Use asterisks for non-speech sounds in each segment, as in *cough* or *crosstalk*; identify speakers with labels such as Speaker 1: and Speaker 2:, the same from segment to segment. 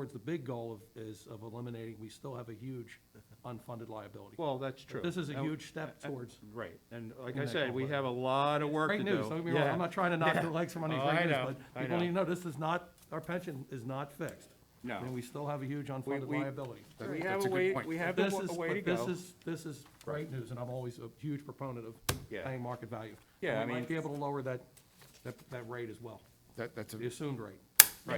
Speaker 1: towards the big goal of, is of eliminating, we still have a
Speaker 2: *laughs*
Speaker 1: huge unfunded liability.
Speaker 2: Well, that's true.
Speaker 1: This is a
Speaker 2: And-
Speaker 1: huge step
Speaker 2: uh, uh,
Speaker 1: towards-
Speaker 2: Right, and like
Speaker 1: in
Speaker 2: I
Speaker 1: that
Speaker 2: said, we
Speaker 1: complex.
Speaker 2: have a lot of work to
Speaker 1: Great
Speaker 2: do.
Speaker 1: news, don't get me wrong,
Speaker 2: Yeah.
Speaker 1: I'm not trying to
Speaker 2: *laughs*
Speaker 1: knock the legs from underneath
Speaker 2: Oh, I
Speaker 1: great news,
Speaker 2: know,
Speaker 1: but
Speaker 2: I
Speaker 1: people need to
Speaker 2: know.
Speaker 1: know, this is not, our pension is not fixed.
Speaker 2: No.
Speaker 1: And we still have a huge unfunded
Speaker 2: we-
Speaker 1: liability.
Speaker 2: We
Speaker 3: Right.
Speaker 2: have
Speaker 3: That's
Speaker 2: a
Speaker 3: a good
Speaker 2: way,
Speaker 3: point.
Speaker 2: we have a
Speaker 1: This
Speaker 2: wa-
Speaker 1: is,
Speaker 2: a way to
Speaker 1: but this
Speaker 2: go.
Speaker 1: is, this is great news, and I'm always a huge proponent of
Speaker 2: Yeah.
Speaker 1: paying market value.
Speaker 2: Yeah,
Speaker 1: And
Speaker 2: I
Speaker 1: We
Speaker 2: mean-
Speaker 1: might be able to lower that, that, that rate as well,
Speaker 3: That, that's, a-
Speaker 1: the assumed rate.
Speaker 2: Right,
Speaker 1: uh,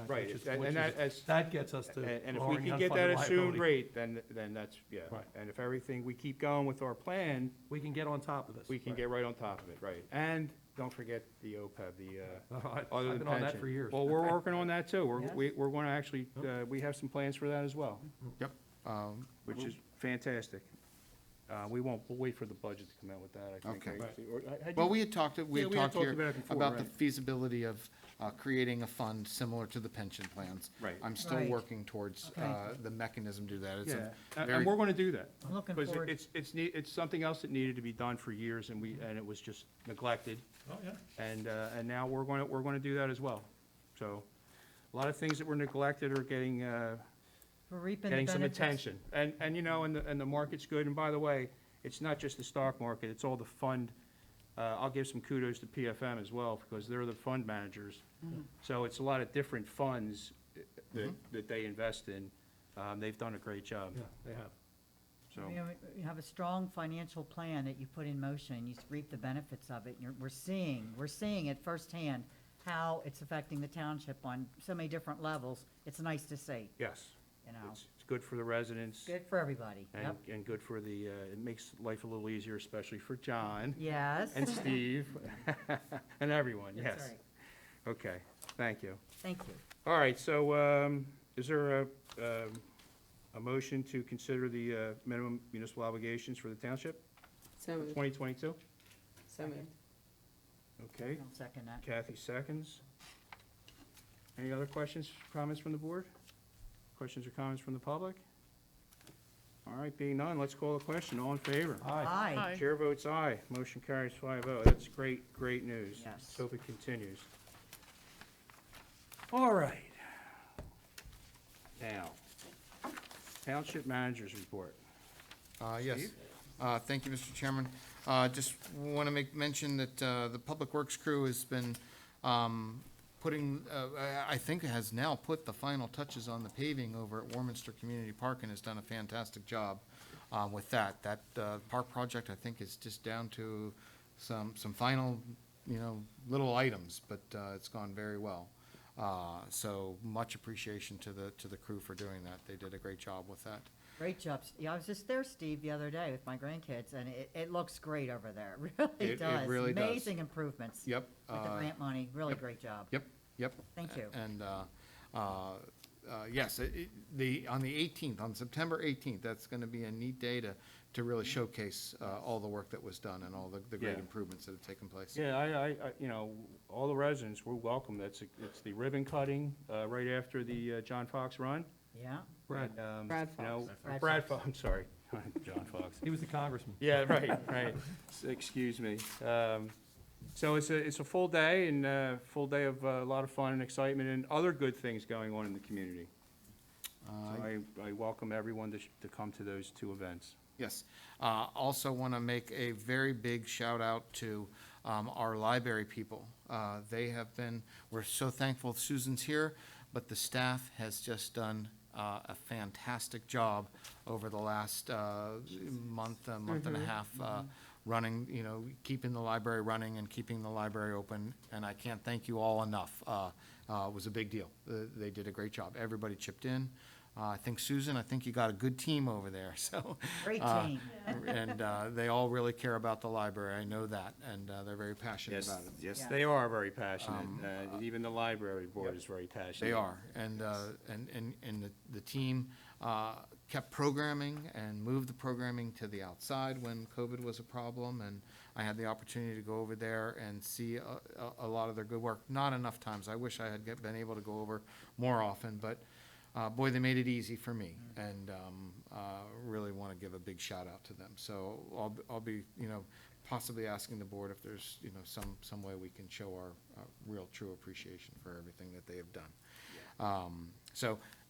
Speaker 1: which
Speaker 2: Right,
Speaker 1: is-
Speaker 2: and-
Speaker 1: which
Speaker 2: and
Speaker 1: is-
Speaker 2: that- as-
Speaker 1: That gets us to
Speaker 2: and and if we
Speaker 1: lowering the
Speaker 2: can get that
Speaker 1: unfunded
Speaker 2: assumed
Speaker 1: liability.
Speaker 2: rate, then, then that's, yeah.
Speaker 1: Right.
Speaker 2: And if everything, we keep going with our plan,
Speaker 1: We can get on top of this.
Speaker 2: we can get right on top of it, right. And don't forget the OPEB, the, uh,
Speaker 1: I've
Speaker 2: other than
Speaker 1: been on that
Speaker 2: pension.
Speaker 1: for years.
Speaker 2: Well, we're working on that too. We're,
Speaker 4: Yeah.
Speaker 2: we- we're going to actually, uh, we have some plans for that as well,
Speaker 3: yep. Um,
Speaker 2: which is fantastic. Uh, We won't, we'll wait for the budget to come out with that, I think.
Speaker 3: Okay.
Speaker 2: right? Or- had you-
Speaker 3: Well, we had talked, we
Speaker 2: Yeah,
Speaker 3: had talked
Speaker 2: about
Speaker 3: here
Speaker 2: it before,
Speaker 3: about the
Speaker 2: right.
Speaker 3: feasibility of uh, creating a fund similar to the pension plans.
Speaker 2: Right.
Speaker 3: I'm still
Speaker 4: Right.
Speaker 3: working towards
Speaker 4: Okay.
Speaker 3: uh, the mechanism to do that. It's
Speaker 2: Yeah,
Speaker 3: a
Speaker 2: and-
Speaker 3: very-
Speaker 2: and we're going to do that.
Speaker 4: I'm looking
Speaker 2: Because
Speaker 4: forward-
Speaker 2: it's, it's, nee- it's something else that needed to be done for years, and we, and it was just neglected.
Speaker 1: Oh, yeah.
Speaker 2: And, uh, and now we're going to, we're going to do that as well. So, a lot of things that were neglected are getting, uh,
Speaker 4: We're reaping the
Speaker 2: getting some
Speaker 4: benefits.
Speaker 2: attention. And, and you know, and the, and the market's good, and by the way, it's not just the stock market, it's all the fund. Uh, I'll give some kudos to PFM as well, because they're the fund managers.
Speaker 4: Mm-hmm.
Speaker 2: So it's a lot of different funds that, that they invest in. Um, they've done a great job,
Speaker 1: Yeah, they have.
Speaker 2: so.
Speaker 4: You know, You have a strong financial plan that you put in motion, you reap the benefits of it, and you're, we're seeing, we're seeing it firsthand how it's affecting the township on so many different levels. It's nice to see,
Speaker 2: Yes.
Speaker 4: you know.
Speaker 2: It's, it's good for the residents
Speaker 4: Good for everybody,
Speaker 2: and,
Speaker 4: yep.
Speaker 2: and good for the, uh, it makes life a little easier, especially for John
Speaker 4: Yes. *laughs*
Speaker 2: and
Speaker 3: *laughs*
Speaker 2: Steve *laughs* and everyone,
Speaker 4: That's
Speaker 2: yes.
Speaker 4: right.
Speaker 2: Okay, thank you.
Speaker 4: Thank you.
Speaker 2: All right, so, um, is there a, um, a motion to consider the, uh, minimum municipal obligations for the township
Speaker 5: So
Speaker 2: for
Speaker 5: moved,
Speaker 2: twenty twenty-two?
Speaker 5: so moved.
Speaker 2: Okay,
Speaker 4: I'll second uh, that.
Speaker 2: Kathy seconds. Any other questions, comments from the board? Questions or comments from the public? All right, being none, let's call the question. All in favor?
Speaker 1: Aye.
Speaker 4: Aye.
Speaker 2: Chair votes aye. Motion carries 5-0. That's great, great news.
Speaker 4: Yes.
Speaker 2: Let's hope it continues. All right. Now, Township Managers Report.
Speaker 3: Uh, Yes.
Speaker 2: Steve?
Speaker 3: Uh, Thank you, Mr. Chairman. Uh, Just want to make mention that uh, the Public Works crew has been um, putting, uh, I- I think has now put the final touches on the paving over at Warminster Community Park and has done a fantastic job um, with that. That uh, park project, I think, is just down to some, some final, you know, little items, but uh, it's gone very well. Uh, So much appreciation to the, to the crew for doing that. They did a great job with that.
Speaker 4: Great job. S- Yeah, I was just there, Steve, the other day with my grandkids, and it, it looks great over there. *laughs*
Speaker 3: It-
Speaker 4: It really
Speaker 3: it
Speaker 4: does.
Speaker 3: really does.
Speaker 4: Amazing improvements.
Speaker 3: Yep.
Speaker 4: With the
Speaker 3: uh,
Speaker 4: grant money, really
Speaker 3: yep.
Speaker 4: great job.
Speaker 3: Yep, yep.
Speaker 4: Thank you.
Speaker 3: And, uh, uh, uh, yes, it- it- the, on the 18th, on September 18th, that's going to be a neat day to, to really
Speaker 4: Mm-hmm.
Speaker 3: showcase uh, all the work that was done and all the, the great
Speaker 2: Yeah.
Speaker 3: improvements that have taken place.
Speaker 2: Yeah, I, I, I- you know, all the residents were welcome. That's, it's the ribbon cutting uh, right after the uh, John Fox run.
Speaker 4: Yeah,
Speaker 1: Brad,
Speaker 2: And, um,
Speaker 5: Brad
Speaker 2: you know,
Speaker 4: Brad
Speaker 2: Brad Fox, I'm sorry, *laughs* John Fox.
Speaker 1: he was the congressman.
Speaker 2: Yeah, right, right. S- Excuse me. Um, So it's a, it's a full day and a full day of uh, a lot of fun and excitement and other good things going on in the community.
Speaker 3: Uh,
Speaker 2: So I, I welcome everyone to, sh- to come to those two events.
Speaker 3: Yes. Uh, Also want to make a very big shout out to um, our library people. Uh, They have been, we're so thankful Susan's here, but the staff has just done uh, a fantastic job over the last uh, month, uh, month and a half, uh, running, you know, keeping the library running and keeping the library open. And I can't thank you all enough. Uh, uh, It was a big deal. Uh, They did a great job. Everybody chipped in. Uh, I think Susan, I think you got a good team over there, *laughs* so.
Speaker 4: Great
Speaker 3: uh,
Speaker 4: team.
Speaker 3: And uh, they all really care about the library, I know that, and uh, they're very passionate about it. Um,
Speaker 2: yes,
Speaker 4: Yeah.
Speaker 2: they are very passionate. Uh, Even the library board is very passionate.
Speaker 3: They are, and, uh, and, and, and the, the team, uh, kept programming and moved the programming to the outside when COVID was a problem, and I had the opportunity to go over there and see a, a, a lot of their good work, not enough times, I wish I had get- been able to go over more often, but, uh, boy, they made it easy for me, and, um, uh, really wanna give a big shout out to them, so I'll, b- I'll be, you know, possibly asking the board if there's, you know, some, some way we can show our uh, real, true appreciation for everything that they have done. Um, So